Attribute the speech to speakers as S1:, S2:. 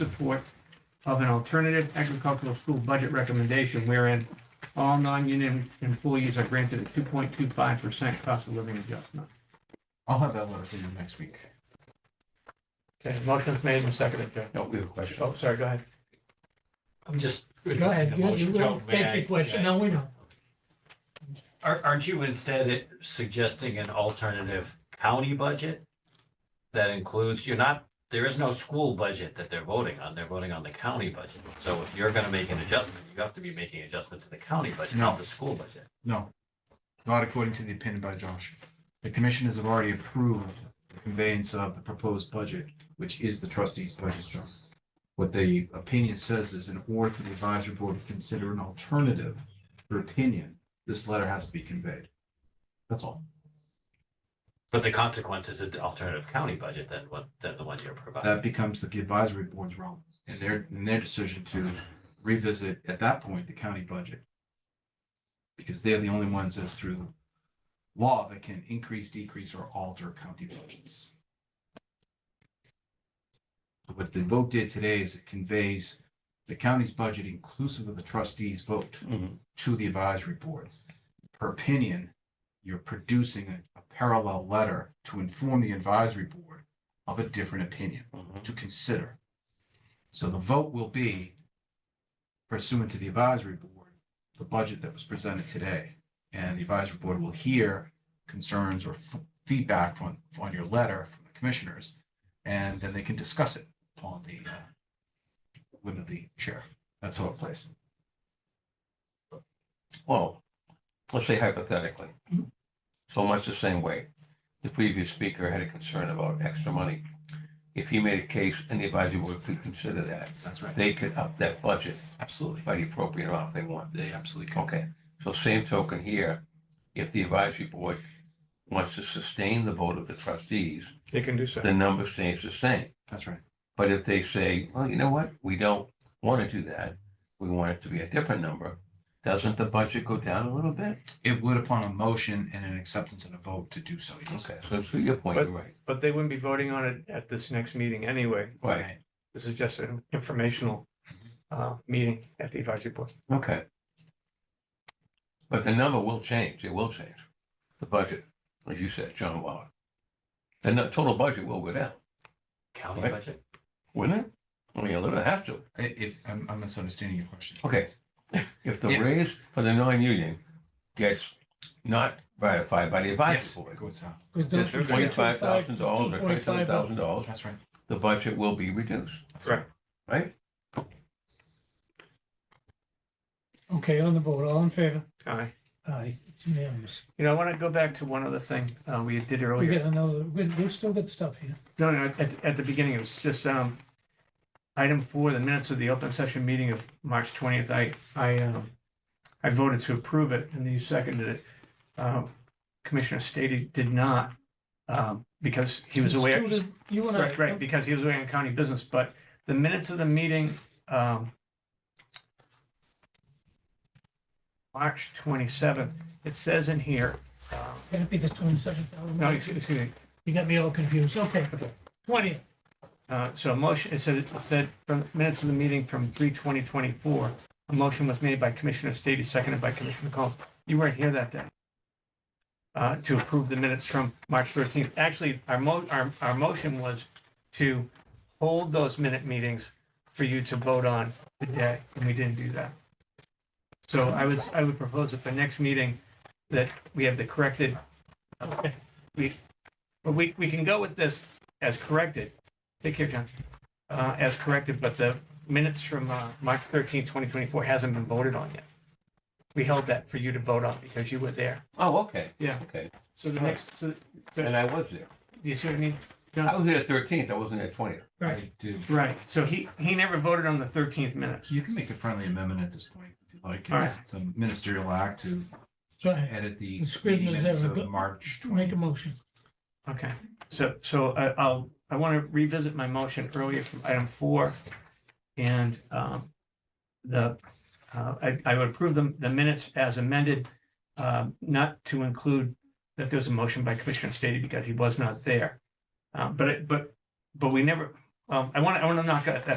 S1: support of an alternative agricultural school budget recommendation wherein all non-union employees are granted a two point two five percent cost of living adjustment.
S2: I'll have that letter for you next week.
S1: Okay, motion's made and seconded, Joe.
S2: No, we have a question.
S1: Oh, sorry, go ahead.
S3: I'm just.
S4: Go ahead,
S3: the
S4: you
S3: motion,
S4: you will
S3: Joe, may
S4: take
S3: I-
S4: your question,
S3: may I-
S4: no, we know.
S3: Aren't, aren't you instead suggesting an alternative county budget? That includes, you're not, there is no school budget that they're voting on, they're voting on the county budget. So if you're gonna make an adjustment, you have to be making adjustment to the county budget,
S2: No.
S3: not the school budget.
S2: No, not according to the opinion by Josh. The commissioners have already approved the conveyance of the proposed budget, which is the trustees' budget, John. What the opinion says is in order for the advisory board to consider an alternative for opinion, this letter has to be conveyed. That's all.
S3: But the consequence is an alternative county budget than what, than the one you're providing.
S2: That becomes the advisory board's role and their, and their decision to revisit at that point the county budget. Because they're the only ones as through law that can increase, decrease, or alter county budgets. What the vote did today is it conveys the county's budget inclusive of the trustees' vote
S3: Mhm.
S2: to the advisory board. Per opinion, you're producing a- a parallel letter to inform the advisory board of a different opinion
S3: Mhm.
S2: to consider. So the vote will be pursuant to the advisory board, the budget that was presented today. And the advisory board will hear concerns or f- feedback on, on your letter from the commissioners. And then they can discuss it upon the uh, whim of the chair. That's how it plays.
S5: Well, let's say hypothetically, so much the same way. The previous speaker had a concern about extra money. If he made a case and the advisory board could consider that,
S2: That's right.
S5: they could up that budget
S2: Absolutely.
S5: by the appropriate amount they want.
S2: They absolutely can.
S5: Okay, so same token here, if the advisory board wants to sustain the vote of the trustees,
S1: They can do so.
S5: the number stays the same.
S2: That's right.
S5: But if they say, well, you know what, we don't want to do that, we want it to be a different number, doesn't the budget go down a little bit?
S2: It would upon a motion and an acceptance and a vote to do so. yes.
S5: Okay, so to your point, you're right.
S1: But they wouldn't be voting on it at this next meeting anyway.
S5: Right,
S1: This is just an informational uh, meeting at the advisory board.
S5: okay. But the number will change, it will change. The budget, as you said, John Waller. The nu- total budget will go down,
S3: County
S5: Right.
S3: budget?
S5: wouldn't it? I mean, a little, it has to.
S2: I- If, I'm I'm misunderstanding your question.
S5: Okay. If the
S2: Yeah.
S5: raise for the non-union gets not ratified by the
S2: Yes,
S5: advisory
S2: it
S5: board,
S2: goes down.
S5: that's twenty-five thousand dollars or
S4: uh,
S5: twenty-seven thousand dollars,
S2: Oh, That's right.
S5: the budget will be reduced,
S1: Correct.
S5: right?
S4: Okay, on the vote, all in favor?
S1: All right.
S4: Aye, it's unanimous.
S1: You know, I want to go back to one other thing uh, we did
S4: We
S1: earlier.
S4: got another, we, we still got stuff here.
S1: No, no, at, at the beginning, it was just, um, item four, the minutes of the open session meeting of March twentieth, I, I, um, I voted to approve it, and you seconded it. Um, Commissioner Stady did not, um, because he was
S4: It's
S1: away.
S4: due to You and I.
S1: Right, right, because he was away on county business, but the minutes of the meeting, um, March twenty-seventh, it says in here, uh,
S4: Can it be the twenty-seven thousand?
S1: no, excuse excuse me,
S4: You got me all confused, okay.
S1: Okay.
S4: Twenty,
S1: Uh, so a motion, it said, it said from minutes of the meeting from three twenty twenty-four, a motion was made by Commissioner Stady, seconded by Commissioner Collins. You weren't here that day. Uh, to approve the minutes from March thirteenth. Actually, our mo, our, our motion was to hold those minute meetings for you to vote on today, and we didn't do that. So I would, I would propose at the next meeting that we have the corrected,
S4: okay,
S1: but we, we can go with this as corrected. Take care, John. Uh, as corrected, but the minutes from, uh, March thirteenth, twenty twenty-four hasn't been voted on yet. We held that for you to vote on because you were there.
S5: Oh, okay.
S1: Yeah.
S5: Okay,
S1: So the next, so,
S5: and I was there.
S1: do you see what I mean?
S5: I was there thirteenth, I wasn't there twentieth.
S4: right.
S2: I do.
S1: Right, so he, he never voted on the thirteenth minutes.
S2: You can make a friendly amendment at this point, if you'd like.
S1: All
S2: It's it's a ministerial act to
S4: Go ahead.
S2: edit the
S4: The script
S2: meeting
S4: is
S2: minutes
S4: ever
S2: of
S4: go-
S2: March
S4: make a
S2: twenty.
S4: motion.
S1: Okay, so, so I, I'll, I want to revisit my motion earlier from item four. And, um, the, uh, I, I would approve the, the minutes as amended, um, not to include that there's a motion by Commissioner Stady because he was not there. Uh, but, it- but, but we never, um, I want, I want to knock that, that